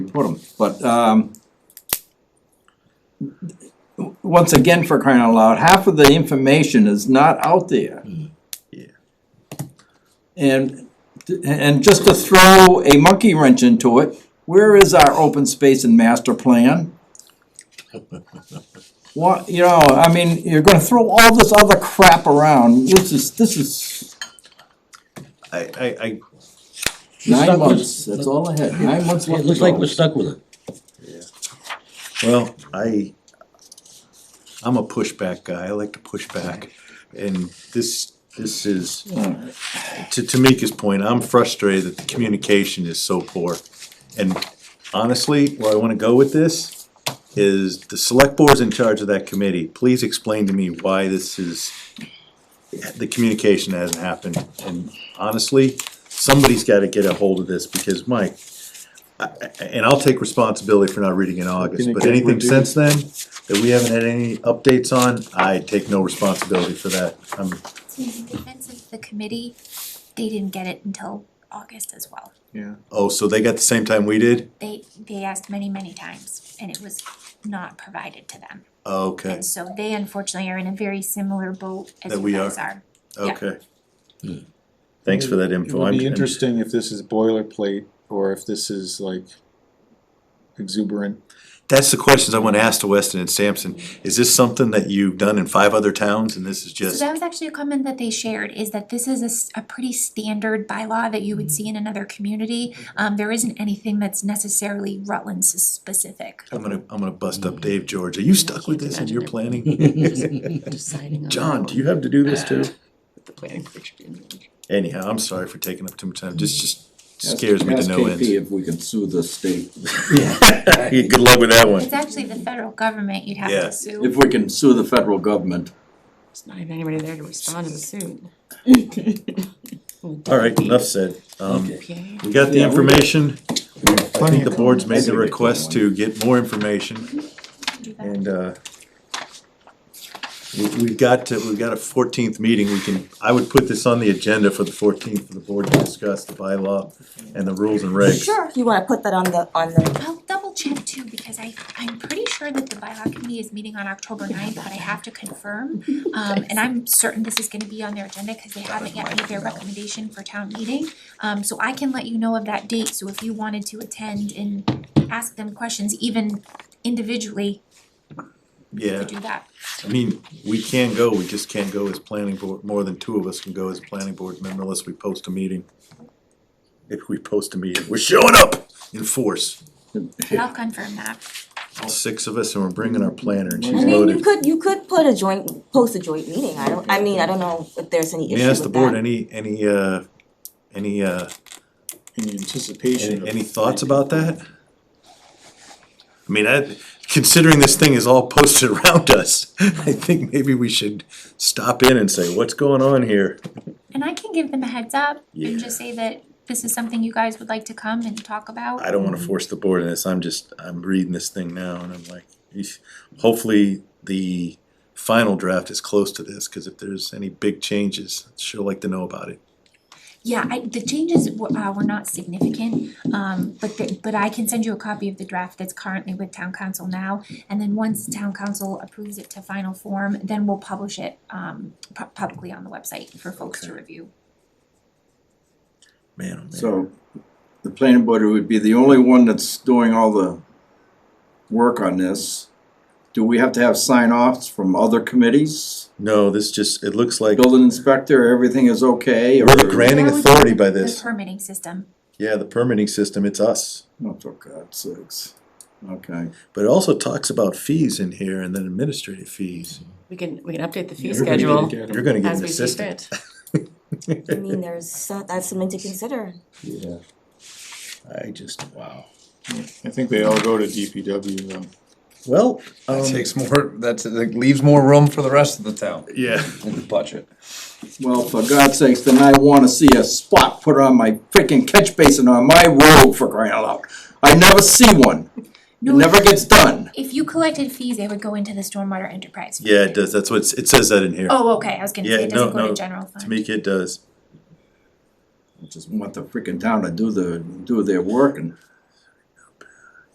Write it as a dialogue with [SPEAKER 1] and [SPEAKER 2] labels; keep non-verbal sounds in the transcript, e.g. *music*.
[SPEAKER 1] put them, but, um, once again, for crying out loud, half of the information is not out there.
[SPEAKER 2] Mm,
[SPEAKER 3] Yeah.
[SPEAKER 1] And, and just to throw a monkey wrench into it, where is our open space and
[SPEAKER 2] *laughs*
[SPEAKER 1] master plan? What, you know, I mean, you're gonna throw all this other crap around, this is, this is
[SPEAKER 3] I, I, I,
[SPEAKER 1] nine
[SPEAKER 2] stuck with-
[SPEAKER 1] months, that's all I had, nine months
[SPEAKER 2] It
[SPEAKER 1] left to
[SPEAKER 2] looks like
[SPEAKER 1] go.
[SPEAKER 2] we're stuck with it.
[SPEAKER 3] well, I, I'm a pushback guy, I like to push back, and this, this is, to Tamika's point, I'm frustrated that the communication is so poor. And honestly, where I wanna go with this is the select board's in charge of that committee, please explain to me why this is, the communication hasn't happened, and honestly, somebody's gotta get a hold of this, because Mike, and I'll take responsibility for not reading in August,
[SPEAKER 4] Can it
[SPEAKER 3] but
[SPEAKER 4] get
[SPEAKER 3] anything since
[SPEAKER 4] reduced?
[SPEAKER 3] then that we haven't had any updates on, I take no responsibility for that, I'm,
[SPEAKER 5] In defense of the committee, they didn't get it until August as well.
[SPEAKER 4] Yeah.
[SPEAKER 3] oh, so they got the same time we did?
[SPEAKER 5] They, they asked many, many times and it was not provided to them.
[SPEAKER 3] Okay,
[SPEAKER 5] And so they unfortunately are in a very similar boat as
[SPEAKER 3] That
[SPEAKER 5] you
[SPEAKER 3] we
[SPEAKER 5] guys
[SPEAKER 3] are.
[SPEAKER 5] are. yeah.
[SPEAKER 3] okay. Thanks for that
[SPEAKER 4] It
[SPEAKER 3] info.
[SPEAKER 4] would
[SPEAKER 3] I'm-
[SPEAKER 4] be interesting if this is boilerplate or if this is like exuberant.
[SPEAKER 3] That's the questions I want to ask to Weston and Sampson. Is this something that you've done in five other towns and this is
[SPEAKER 5] So
[SPEAKER 3] just,
[SPEAKER 5] that was actually a comment that they shared, is that this is a s- a, pretty standard bylaw that you would see in another community. Um, there isn't anything that's necessarily Rutland s- specific.
[SPEAKER 3] I'm gonna, I'm gonna bust up Dave George. Are you stuck with this and you're planning?
[SPEAKER 6] deciding on.
[SPEAKER 3] John, do you have to do this too?
[SPEAKER 6] The planning picture didn't.
[SPEAKER 3] Anyhow, I'm sorry for taking up too much time. This just scares me to no
[SPEAKER 1] Ask KP
[SPEAKER 3] end.
[SPEAKER 1] if we can sue the state,
[SPEAKER 3] *laughs* Good luck with that one.
[SPEAKER 5] It's actually the federal government you'd have
[SPEAKER 3] Yeah.
[SPEAKER 5] to sue.
[SPEAKER 1] if we can sue the federal government.
[SPEAKER 6] There's not even anybody there to respond to the suit.
[SPEAKER 3] *laughs* All right, enough said. Um,
[SPEAKER 6] Okay.
[SPEAKER 3] we got the
[SPEAKER 1] Yeah, we-
[SPEAKER 3] information. I
[SPEAKER 4] Plenty
[SPEAKER 3] think
[SPEAKER 4] of
[SPEAKER 3] the board's made the
[SPEAKER 1] comments.
[SPEAKER 3] request to get more information.
[SPEAKER 5] Do that.
[SPEAKER 3] And, uh, we, we've got to, we've got a fourteenth meeting, we can, I would put this on the agenda for the fourteenth for the board to discuss the bylaw and the rules and regs.
[SPEAKER 7] Sure, you wanna put that on the, on the,
[SPEAKER 5] I'll double check too, because I, I'm pretty sure that the bylaw committee is meeting on October ninth, but I have
[SPEAKER 3] *laughs*
[SPEAKER 5] to confirm. Um, and I'm certain this is gonna be on their agenda, cause they haven't yet made their recommendation for town meeting. Um, so I can let you know of that date, so if you wanted to attend and ask them questions, even individually, you
[SPEAKER 3] Yeah,
[SPEAKER 5] could do
[SPEAKER 3] *laughs*
[SPEAKER 5] that.
[SPEAKER 3] I mean, we can go, we just can't go as planning board, more than two of us can go as a planning board member unless we post a meeting. If we post a meeting, we're showing up in force,
[SPEAKER 5] But I'll confirm that.
[SPEAKER 3] all six of us, and we're bringing our planner, and she's
[SPEAKER 7] I mean, you
[SPEAKER 3] loaded.
[SPEAKER 7] could, you could put a joint, post a joint meeting, I don't, I mean, I don't know if there's any
[SPEAKER 3] Let
[SPEAKER 7] issue with
[SPEAKER 3] me
[SPEAKER 7] that.
[SPEAKER 3] ask the board, any, any, uh, any, uh,
[SPEAKER 4] In anticipation
[SPEAKER 3] Any,
[SPEAKER 4] of.
[SPEAKER 3] any thoughts about that? I mean, I, considering this thing is all posted *laughs* around us, I think maybe we should stop in and say, what's going on here?
[SPEAKER 5] And I can give them a heads up
[SPEAKER 3] Yeah.
[SPEAKER 5] and just say that this is something you guys would like to come and talk about.
[SPEAKER 3] I don't wanna force the board in this, I'm just, I'm reading this thing now and I'm like, eesh. hopefully the final draft is close to this, cause if there's any big changes, I'd sure like to know about it.
[SPEAKER 5] Yeah, I, the changes were, uh, were not significant, um, but the, but I can send you a copy of the draft that's currently with town council now. And then once town council approves it to final form, then we'll publish it, um, pu- publicly on the website for folks to
[SPEAKER 3] Okay.
[SPEAKER 5] review.
[SPEAKER 3] Man, oh man,
[SPEAKER 1] So the planning board would be the only one that's doing all the work on this. Do we have to have sign offs from other committees?
[SPEAKER 3] no, this just, it looks like,
[SPEAKER 1] Building inspector, everything is okay or?
[SPEAKER 3] we're the granting
[SPEAKER 5] That would be
[SPEAKER 3] authority by
[SPEAKER 5] the
[SPEAKER 3] this,
[SPEAKER 5] permitting system.
[SPEAKER 3] yeah, the permitting system, it's us.
[SPEAKER 1] Oh, for God's sakes. Okay.
[SPEAKER 3] But it also talks about fees in here and then administrative fees.
[SPEAKER 6] We can, we can update the fee
[SPEAKER 4] You're gonna
[SPEAKER 6] schedule
[SPEAKER 4] get them.
[SPEAKER 3] You're gonna get
[SPEAKER 6] as
[SPEAKER 3] an
[SPEAKER 6] we see
[SPEAKER 3] assistant.
[SPEAKER 6] fit.
[SPEAKER 7] I mean, there's, so- that's something to consider.
[SPEAKER 3] Yeah. I just, wow.
[SPEAKER 4] I think they all go to DPW though.
[SPEAKER 3] Well,
[SPEAKER 8] That
[SPEAKER 3] um,
[SPEAKER 8] takes more. That's like leaves more room for the rest of the town
[SPEAKER 3] yeah,
[SPEAKER 8] in the budget.
[SPEAKER 1] Well, for God's sakes, then I wanna see a spot put on my freaking catch basin on my road for crying out loud. I never see one. It
[SPEAKER 5] No,
[SPEAKER 1] never gets done.
[SPEAKER 5] If you collected fees, they would go into the stormwater enterprise. fund.
[SPEAKER 3] yeah, it does. That's what, it's- it says that in here.
[SPEAKER 5] Oh, okay, I was gonna say
[SPEAKER 3] Yeah,
[SPEAKER 5] it
[SPEAKER 3] no,
[SPEAKER 5] doesn't go
[SPEAKER 3] no,
[SPEAKER 5] to general fund.
[SPEAKER 3] to me, it does.
[SPEAKER 1] I Just want the freaking town to do the, do their work and